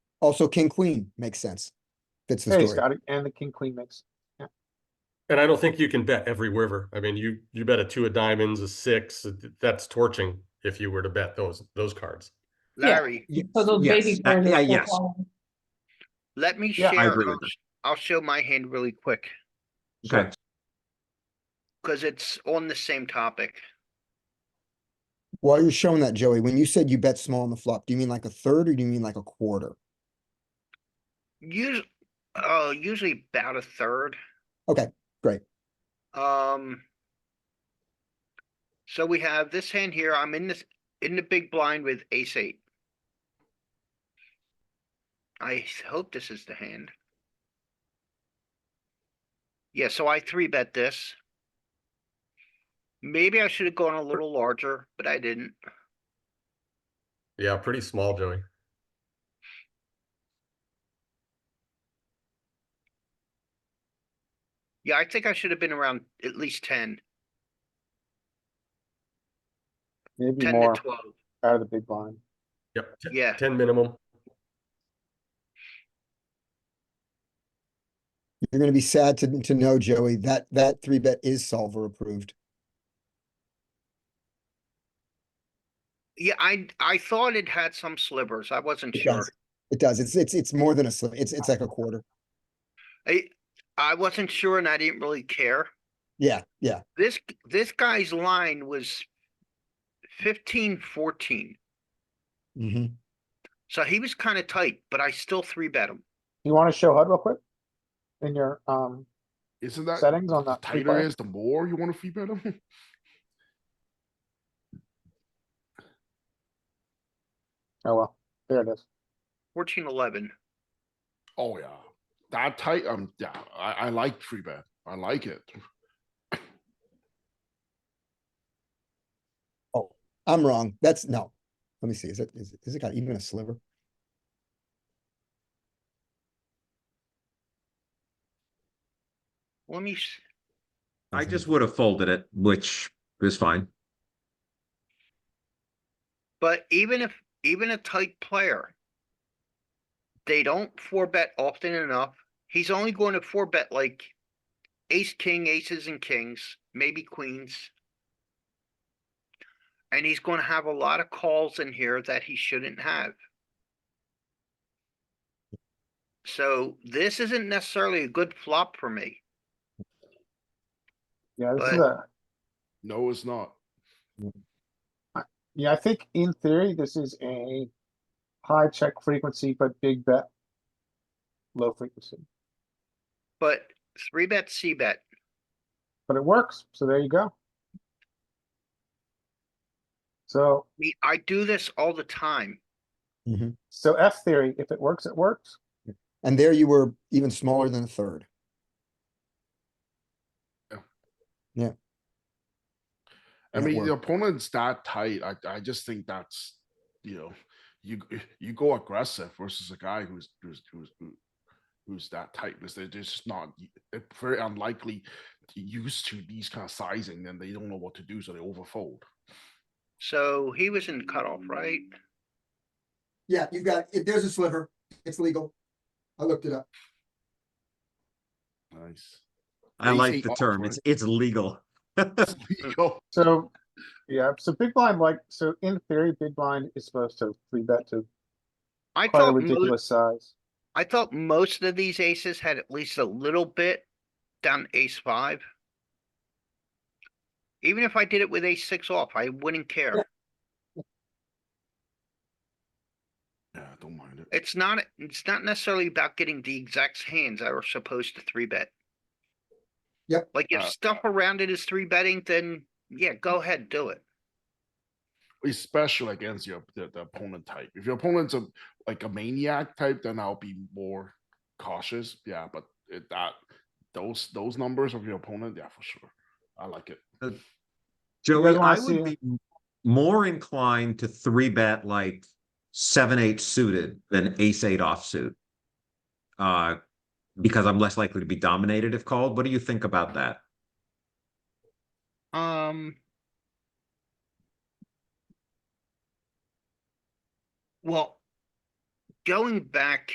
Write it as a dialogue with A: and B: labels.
A: Also, king, queen makes sense. Fits the
B: Hey,
A: story.
B: Scotty, and the king queen mix.
C: And I don't think you can bet every river. I mean, you you bet a two of diamonds, a six. uh, That's torching if you were to bet those those cards.
D: Yeah.
E: Larry,
A: Ye-
D: So those
F: Yes,
D: baby.
F: uh,
D: birds
F: yeah,
D: are
F: yes.
D: so-
E: let me
B: Yeah, I
E: share.
F: agree with
E: I'll-
F: that.
E: I'll show my hand really quick,
F: Okay,
E: because it's on the same topic.
A: While you're showing that, Joey, when you said you bet small on the flop, do you mean like a third or do you mean like a quarter?
E: Usually, uh, usually about a third.
A: Okay, great.
E: Um. So we have this hand here. I'm in this, in the big blind with ace eight. I s- hope this is the hand. Yeah, so I three bet this. Maybe I should have gone a little larger, but I didn't.
C: Yeah, pretty small, Joey.
E: Yeah, I think I should have been around at least ten,
B: Maybe
E: ten
B: more
E: to twelve.
B: out of the big blind.
C: Yep. t-
E: Yeah,
C: Ten minimum.
A: You're gonna be sad to, to know, Joey, that, that three bet is solver approved.
E: yeah, I, I thought it had some slivers. I wasn't
A: It
E: sure.
A: does. It does. It's, it's, it's more than a slip. It's, it's like a quarter.
E: I, I wasn't sure and I didn't really care.
A: Yeah, yeah.
E: This, this guy's line was fifteen, fourteen.
A: hmm
E: So he was kind of tight, but I still three bet him.
B: You wanna show HUD real quick? In your, um,
G: Isn't that
B: settings on
G: Uh, the
B: that three
G: tighter
B: bet?
G: is the more you want to free bet them?
B: Oh, well, there it is.
E: Fourteen, eleven.
G: oh yeah, that tight. Um, yeah, I, I like free bet. I like it.
A: Oh, I'm wrong. That's, no. Let me see. Is it, is, it- is it got even a sliver?
E: Let me, s-
F: I just would have folded it, which is fine.
E: but even if, even a tight player. They don't four bet often enough. He's only going to four bet like ace, king, aces and kings, maybe queens. And he's going to have a lot of calls in here that he shouldn't have. So this isn't necessarily a good flop for me.
B: Yeah, this is
E: But-
B: a,
G: No, it's not.
B: yeah, I think in theory, this is a high check frequency, but big bet. Low frequency,
E: But three bet, C bet,
B: but it works, so there you go. So,
E: we, I do this all the time.
A: hmm
B: so F theory, if it works, it works.
A: And there you were even smaller than a third. Yeah,
G: I
A: it
G: mean, the
A: worked.
G: opponent's that tight. I, I just think that's, you know, you g- you go aggressive versus a guy who's who's who's who- who's that tight because they're just not y- they're very unlikely used to these kind of sizing. Then they don't know what to do, so they overfold.
E: So he was in cutoff, right?
A: Yeah, you've got, there's a sliver. It's legal. I looked it up.
G: Nice.
F: I
G: Ace
F: like
G: eight
F: the
G: off,
F: term.
G: right?
F: It's, it's legal.
G: Yo,
B: So, yeah, so big blind, like, so in theory, big blind is supposed to three bet to
E: I
B: quite a
E: thought, mo-
B: ridiculous size.
E: I thought most of these aces had at least a little bit down to ace five. Even if I did it with ace six off, I wouldn't care.
G: yeah, I don't mind it.
E: It's not, it's not necessarily about getting the exact hands I were supposed to three bet.
A: Yep.
E: Like if
G: Uh,
E: stuff around it is three betting, then yeah, go ahead, do it.
G: especially against your the, the opponent type. If your opponent's a like a maniac type, then I'll be more cautious. Yeah, but it, that those those numbers of your opponent, yeah, for sure. I like it.
B: guys
F: Joey,
B: wanna
F: I would
B: see
F: be more inclined to three bet like seven, eight suited than ace eight offsuit. Uh, because I'm less likely to be dominated if called. What do you think about that?
E: Um. Well, going back